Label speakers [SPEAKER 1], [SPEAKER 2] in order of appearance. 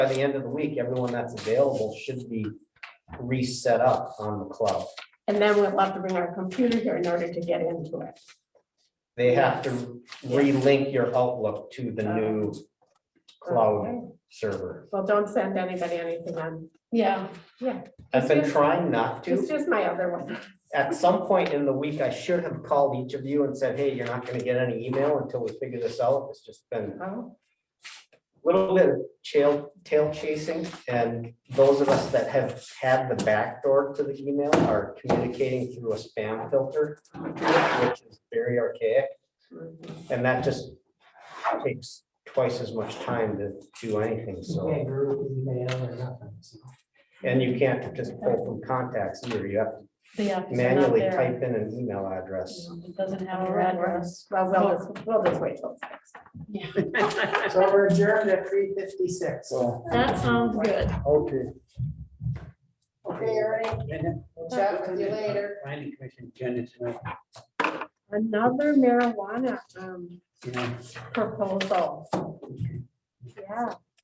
[SPEAKER 1] by the end of the week, everyone that's available should be reset up on the club.
[SPEAKER 2] And then we'll have to bring our computer here in order to get into it.
[SPEAKER 1] They have to relink your Outlook to the new cloud
[SPEAKER 2] Okay.
[SPEAKER 1] server.
[SPEAKER 2] Well, don't send anybody anything on,
[SPEAKER 3] Yeah,
[SPEAKER 1] I've been trying not
[SPEAKER 2] it's
[SPEAKER 1] to.
[SPEAKER 2] just my other one.
[SPEAKER 1] At some point in the week, I should have called each of you and said, hey, you're not gonna get any email until we figure this out. It's just been
[SPEAKER 2] Oh,
[SPEAKER 1] little bit of tail, tail chasing, and those of us that have had the backdoor to the email are communicating through a spam filter, which is very archaic,
[SPEAKER 2] mhm.
[SPEAKER 4] Mm-hmm.
[SPEAKER 1] and that just takes twice as much time to do anything, so.
[SPEAKER 4] Can't group email or nothing, so.
[SPEAKER 1] And you can't just pull from contacts either, you have to
[SPEAKER 3] the app is not
[SPEAKER 1] manually
[SPEAKER 3] there.
[SPEAKER 1] type in an email address.
[SPEAKER 3] It doesn't have
[SPEAKER 2] All
[SPEAKER 3] your
[SPEAKER 2] right, we're-
[SPEAKER 3] address.
[SPEAKER 2] Well, we'll just, we'll just wait till it's next.
[SPEAKER 4] So we're adjourned at three fifty-six.
[SPEAKER 3] That sounds good.
[SPEAKER 5] Okay.
[SPEAKER 4] Okay, Ernie, we'll chat with you later.
[SPEAKER 5] Planning commission agenda tonight,
[SPEAKER 2] Another marijuana, um,
[SPEAKER 5] you know,
[SPEAKER 2] proposal. Yeah,